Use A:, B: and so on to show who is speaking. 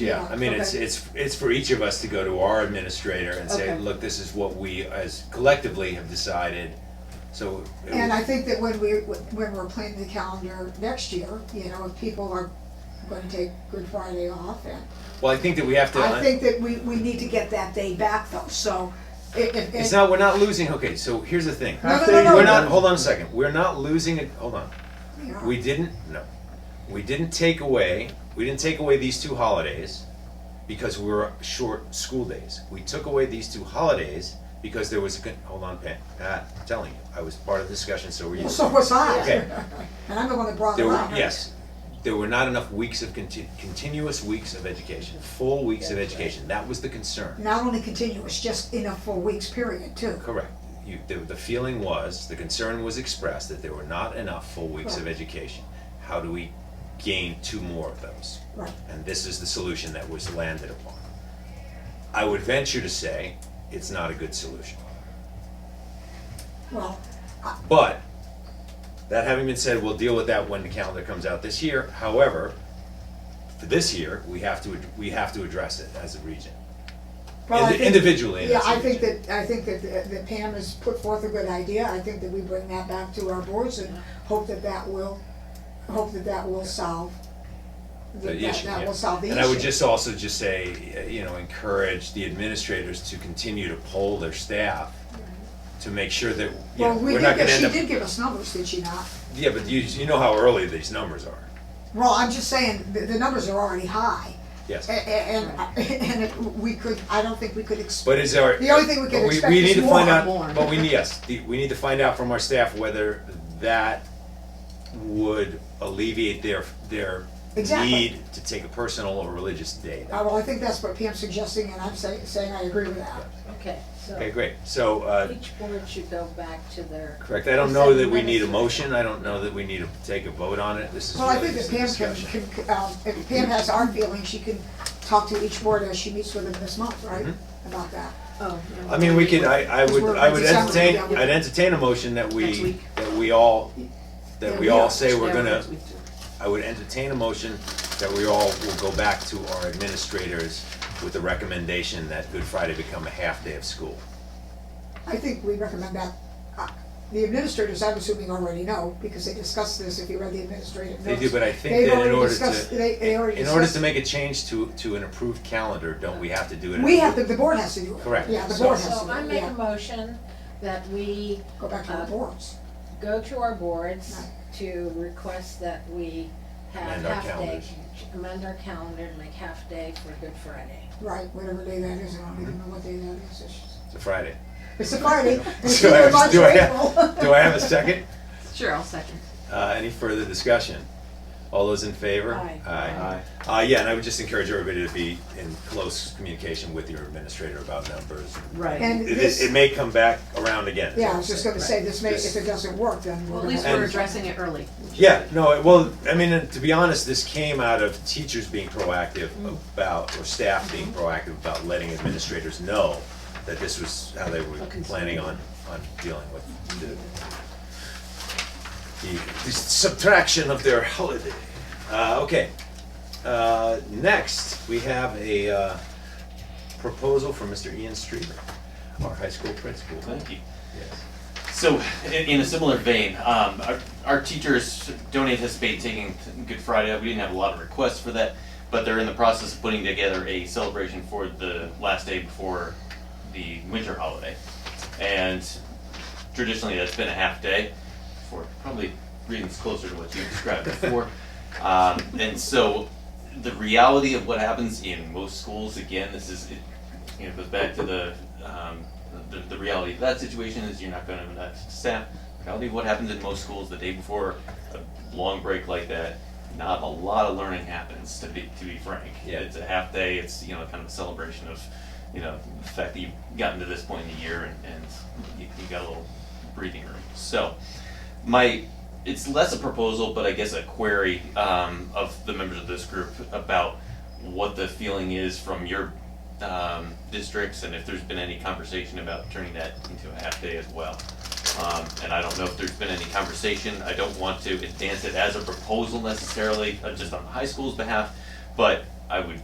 A: Yeah, I mean, it's,
B: Okay.
A: it's, it's for each of us to go to our administrator and say,
B: Okay.
A: look, this is what we as collectively have decided, so. it
B: And
A: was-
B: I think that when we, when we're planning the calendar next year, you know, if people are gonna take Good Friday off and,
A: Well, I think that we have to. uh,
B: I think that we, we need to get that day back though, so if, if.
A: It's not, we're not losing, okay, so here's the thing.
B: No, no, no, no.
A: We're not, hold on a second, we're not losing it, hold on.
B: you know,
A: We didn't, no, we didn't take away, we didn't take away these two holidays because we were short school days. We took away these two holidays because there was a, con- hold on, Pam, Ah, I'm telling you, I was part of the discussion, so were you.
B: Well, So was I.
A: Okay.
B: And I'm the one that brought it
A: There were,
B: up.
A: yes, there were not enough weeks of conti- continuous weeks of education, full weeks of education, that was the concern.
B: Not only continuous, just in a four weeks period too.
A: Correct. You, the, the feeling was, the concern was expressed that there were not enough full weeks of
B: Right.
A: education. How do we gain two more of those?
B: Right.
A: And this is the solution that was landed upon. I would venture to say, it's not a good solution.
B: Well,
A: But, that having been said, we'll deal with that when the calendar comes out this year. However, for this year, we have to, ad- we have to address it as a region.
B: well, I
A: Indi-
B: think-
A: individually, and
B: Yeah,
A: as a
B: I think
A: region.
B: that, I think that, uh, that Pam has put forth a good idea, I think that we bring that back to our boards and hope that that will, hope that that will solve.
A: the
B: that-
A: issue,
B: That
A: yeah.
B: will solve the issue.
A: And I would just also just say, uh, you know, encourage the administrators to continue to poll their staff to make sure that, you know,
B: Well, we
A: we're
B: did,
A: not
B: get-
A: gonna
B: she
A: end up.
B: did give us numbers, did she not?
A: Yeah, but you, you know how early these numbers are,
B: Well, I'm just saying, the, the numbers are already high,
A: yes.
B: a- a- and, and if we could, I don't think we could expect.
A: But is our.
B: The only thing we can
A: but
B: expect
A: we
B: is
A: need to
B: more
A: find
B: and
A: out-
B: more.
A: But we, need- yes, the- we need to find out from our staff whether that would alleviate their, their
B: Exactly.
A: need to take a personal or religious day.
B: Uh, well, I think that's what Pam's suggesting, and I'm saying, saying I agree with that.
C: Okay, so
A: Okay, great, so, uh,
C: each board should go back to their,
A: correct, I don't know that we need a motion, I don't know that we need to take a vote on it, this is
B: Well, I
A: really
B: think that
A: just a
B: Pam
A: discussion.
B: can, can, um, if Pam has our feelings, she can talk to each board as she meets with them this month, right?
A: Mm-hmm.
B: About that.
C: oh. no.
A: I mean, we could, I, I would, I would
B: Because we're-
A: entertain,
B: we're-
A: I'd entertain a motion that
C: Next
A: we,
C: week.
A: that we all,
B: Yeah,
A: that
B: we
A: we all
B: are.
A: say we're
C: Yeah,
A: gonna,
C: we do.
A: I would entertain a motion that we all will go back to our administrators with the recommendation that Good Friday become a half day of school.
B: I think we recommend that, uh, the administrators, I'm assuming already know, because they discussed this, if you read the administrative
A: They
B: notes.
A: do, but I think
B: They've
A: that in
B: already
A: order
B: discussed- they- they
A: to,
B: already
A: in order to
B: discussed-
A: make a change to, to an approved calendar, don't we have to do it? in
B: We
A: a-
B: have, to- the board has to do it.
A: Correct.
B: Yeah, the
A: So-
B: board has to
C: So
B: do
C: I
B: it,
C: make a
B: yeah.
C: motion that we
B: Go back to our
C: uh,
B: boards.
C: go to our boards
B: Right.
C: to request that we have
A: Amend our
C: half day,
A: calendars.
C: amend our calendar and make half day for Good Friday.
B: Right, whatever day that is, I don't even know
A: Mm-hmm.
B: what day that is. It's just-
A: It's a Friday.
B: It's a Friday, it's
A: Do I
B: either
A: have-
B: March
A: do
B: or
A: I have-
B: April.
A: Do I have a second?
C: Sure, I'll second.
A: Uh, any further discussion? All those in favor?
C: Aye.
A: Aye. Uh, yeah, and I would just encourage everybody to be in close communication with your administrator about numbers.
D: Right.
B: And
A: It,
B: this-
A: it, it may come back around again. is
B: Yeah,
A: all
B: I
A: I'm
B: was just
A: saying.
B: gonna say, this may, if it
A: Just-
B: doesn't work, then we're
E: Well,
B: gonna.
E: at least
A: And-
E: we're addressing it early.
A: Yeah, no, it- well, I mean, and to be honest, this came out of teachers being proactive about, or staff being proactive about letting administrators know that this was how they were planning on, on dealing with the, the the subtraction of their holiday. Uh, okay, uh, next, we have a, uh, proposal from Mr. Ian Streeter, our high school principal.
F: Thank you.
A: Yes.
F: So, in, in a similar vein, um, our, our teachers don't anticipate taking Good Friday. off. We didn't have a lot of requests for that, but they're in the process of putting together a celebration for the last day before the winter holiday. And traditionally, that's been a half day for probably reasons closer to what you described before. um, and so, the reality of what happens in most schools, again, this is it, you know, goes back to the, um, the, the reality of that situation is you're not gonna have enough staff. Reality of what happens in most schools the day before a long break like that, not a lot of learning happens, to be, to be frank.
A: Yeah.
F: It's a half day, it's, you know, kind of a celebration of, you know, the fact that you've gotten to this point in the year and, and you, you got a little breathing room. So, my, it's less a proposal, but I guess a query, um, of the members of this group about what the feeling is from your um, districts and if there's been any conversation about turning that into a half day as well. Um, and I don't know if there's been any conversation, I don't want to advance it as a proposal necessarily, uh, just on the high school's behalf, but I would